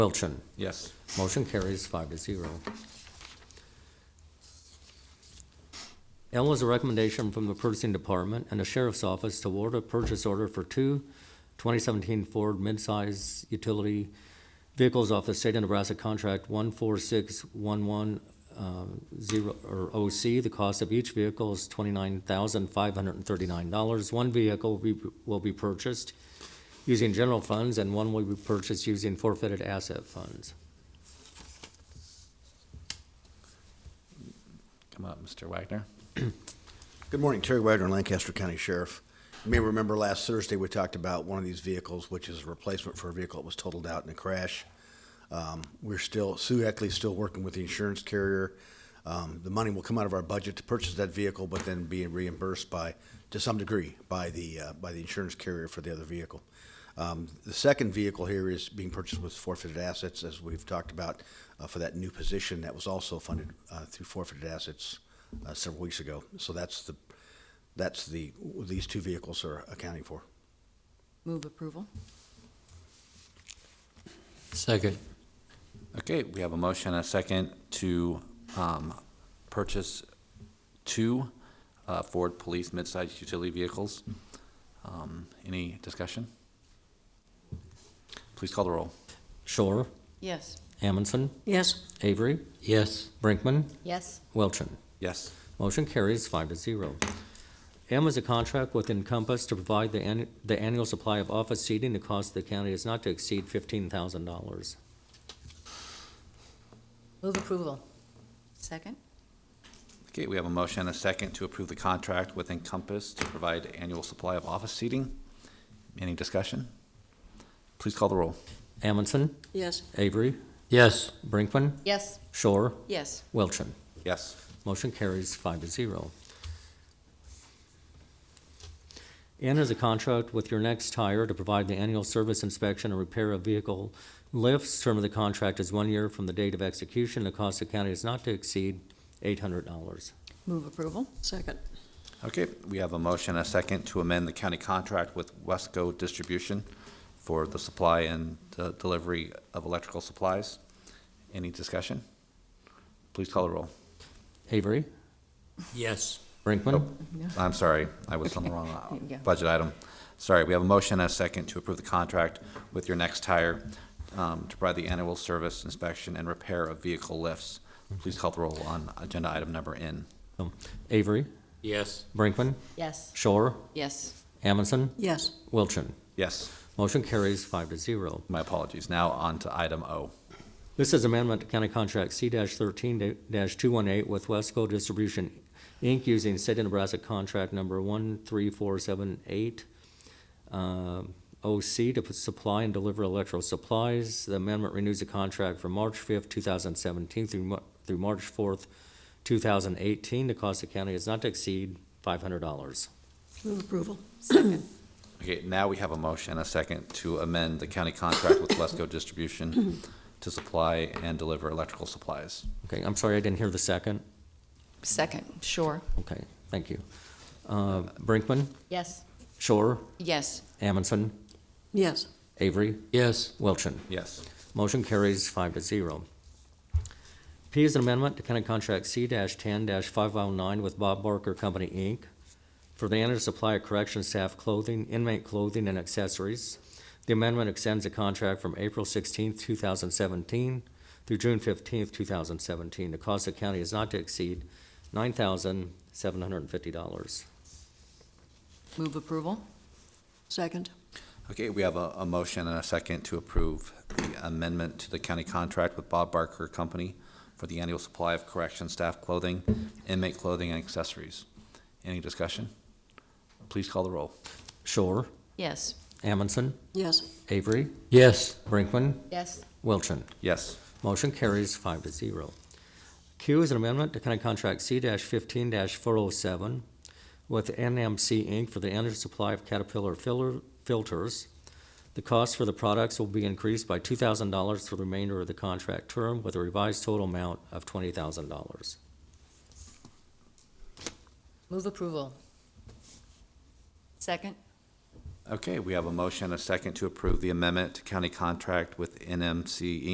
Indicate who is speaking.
Speaker 1: Wilchin.
Speaker 2: Yes.
Speaker 1: Motion carries five to zero. L is a recommendation from the purchasing department and the sheriff's office to award a purchase order for two 2017 Ford midsize utility vehicles off the state of Nebraska contract 146110, uh, or OC. The cost of each vehicle is $29,539. One vehicle will be- will be purchased using general funds, and one will be purchased using forfeited asset funds.
Speaker 2: Come up, Mr. Wagner.
Speaker 3: Good morning, Terry Wagner, Lancaster County Sheriff. You may remember last Thursday, we talked about one of these vehicles, which is a replacement for a vehicle that was totaled out in a crash. Um, We're still, Sue Heckley's still working with the insurance carrier. Um, The money will come out of our budget to purchase that vehicle, but then be reimbursed by, to some degree, by the, uh, by the insurance carrier for the other vehicle. Um, The second vehicle here is being purchased with forfeited assets, as we've talked about, uh, for that new position that was also funded uh, through forfeited assets uh, several weeks ago. So that's the, that's the, these two vehicles are accounting for.
Speaker 4: Move approval?
Speaker 1: Second.
Speaker 2: Okay, we have a motion and a second to um, purchase two uh, Ford Police midsize utility vehicles. Um, Any discussion? Please call the roll.
Speaker 1: Shore,
Speaker 4: Yes.
Speaker 1: Amundson,
Speaker 4: Yes.
Speaker 1: Avery. Yes. Brinkman,
Speaker 4: Yes.
Speaker 1: Wilchin.
Speaker 2: Yes.
Speaker 1: Motion carries five to zero. M is a contract with Encompass to provide the annu- the annual supply of office seating. The cost of the county is not to exceed fifteen thousand dollars.
Speaker 4: Move approval? Second?
Speaker 2: Okay, we have a motion and a second to approve the contract with Encompass to provide annual supply of office seating. Any discussion? Please call the roll.
Speaker 1: Amundson,
Speaker 4: Yes.
Speaker 1: Avery. Yes. Brinkman,
Speaker 4: Yes.
Speaker 1: Shore,
Speaker 4: Yes.
Speaker 1: Wilchin.
Speaker 2: Yes.
Speaker 1: Motion carries five to zero. N is a contract with your next tire to provide the annual service inspection and repair of vehicle lifts. Term of the contract is one year from the date of execution. The cost to county is not to exceed eight hundred dollars.
Speaker 4: Move approval? Second?
Speaker 2: Okay, we have a motion and a second to amend the county contract with Wesco Distribution for the supply and the delivery of electrical supplies. Any discussion? Please call the roll.
Speaker 1: Avery? Yes. Brinkman?
Speaker 2: I'm sorry, I was on the wrong
Speaker 4: Yeah.
Speaker 2: uh, budget item. Sorry, we have a motion and a second to approve the contract with your next tire um, to provide the annual service inspection and repair of vehicle lifts. Please call the roll on agenda item number N.
Speaker 1: Avery? Yes. Brinkman?
Speaker 4: Yes.
Speaker 1: Shore?
Speaker 4: Yes.
Speaker 1: Amundson?
Speaker 4: Yes.
Speaker 1: Wilchin?
Speaker 2: Yes,
Speaker 1: Motion carries five to zero.
Speaker 2: my apologies. Now on to item O.
Speaker 1: This is amendment to county contract C thirteen two one eight with Wesco Distribution, Inc., using state of Nebraska contract number one three four seven eight, OC to supply and deliver electrical supplies. The amendment renews the contract from March fifth, two thousand seventeen through, Mar- through March fourth, two thousand eighteen. The cost of county is not to exceed five hundred dollars.
Speaker 4: Move approval? Second?
Speaker 2: Okay, now we have a motion, and a second, to amend the county contract with Wesco Distribution to supply and deliver electrical supplies.
Speaker 1: Okay, I'm sorry, I didn't hear the second.
Speaker 4: Second, sure.
Speaker 1: Okay, thank you. Uh, Brinkman,
Speaker 4: Yes.
Speaker 1: Shore,
Speaker 4: Yes.
Speaker 1: Amundson,
Speaker 4: Yes.
Speaker 1: Avery? Yes. Wilchin?
Speaker 2: Yes.
Speaker 1: Motion carries five to zero. P is an amendment to County Contract C ten five oh nine with Bob Barker Company, Inc. for the annual supply of correction staff clothing, inmate clothing, and accessories. The amendment extends the contract from April sixteenth, two thousand seventeen through June fifteenth, two thousand seventeen. The cost of county is not to exceed nine thousand seven hundred and fifty dollars.
Speaker 4: Move approval? Second?
Speaker 2: Okay, we have a, a motion and a second to approve the amendment to the county contract with Bob Barker Company for the annual supply of correction staff clothing, inmate clothing, and accessories. Any discussion? Please call the roll.
Speaker 1: Shore,
Speaker 4: Yes.
Speaker 1: Amundson,
Speaker 4: Yes.
Speaker 1: Avery? Yes. Brinkman,
Speaker 4: Yes.
Speaker 1: Wilchin?
Speaker 2: Yes.
Speaker 1: Motion carries five to zero. Q is an amendment to County Contract C fifteen four oh seven with NMC Inc. for the energy supply of Caterpillar filler, filters. The cost for the products will be increased by two thousand dollars for the remainder of the contract term with a revised total amount of twenty thousand dollars.
Speaker 4: Move approval? Second?
Speaker 2: Okay, we have a motion and a second to approve the amendment to county contract with NMC Inc.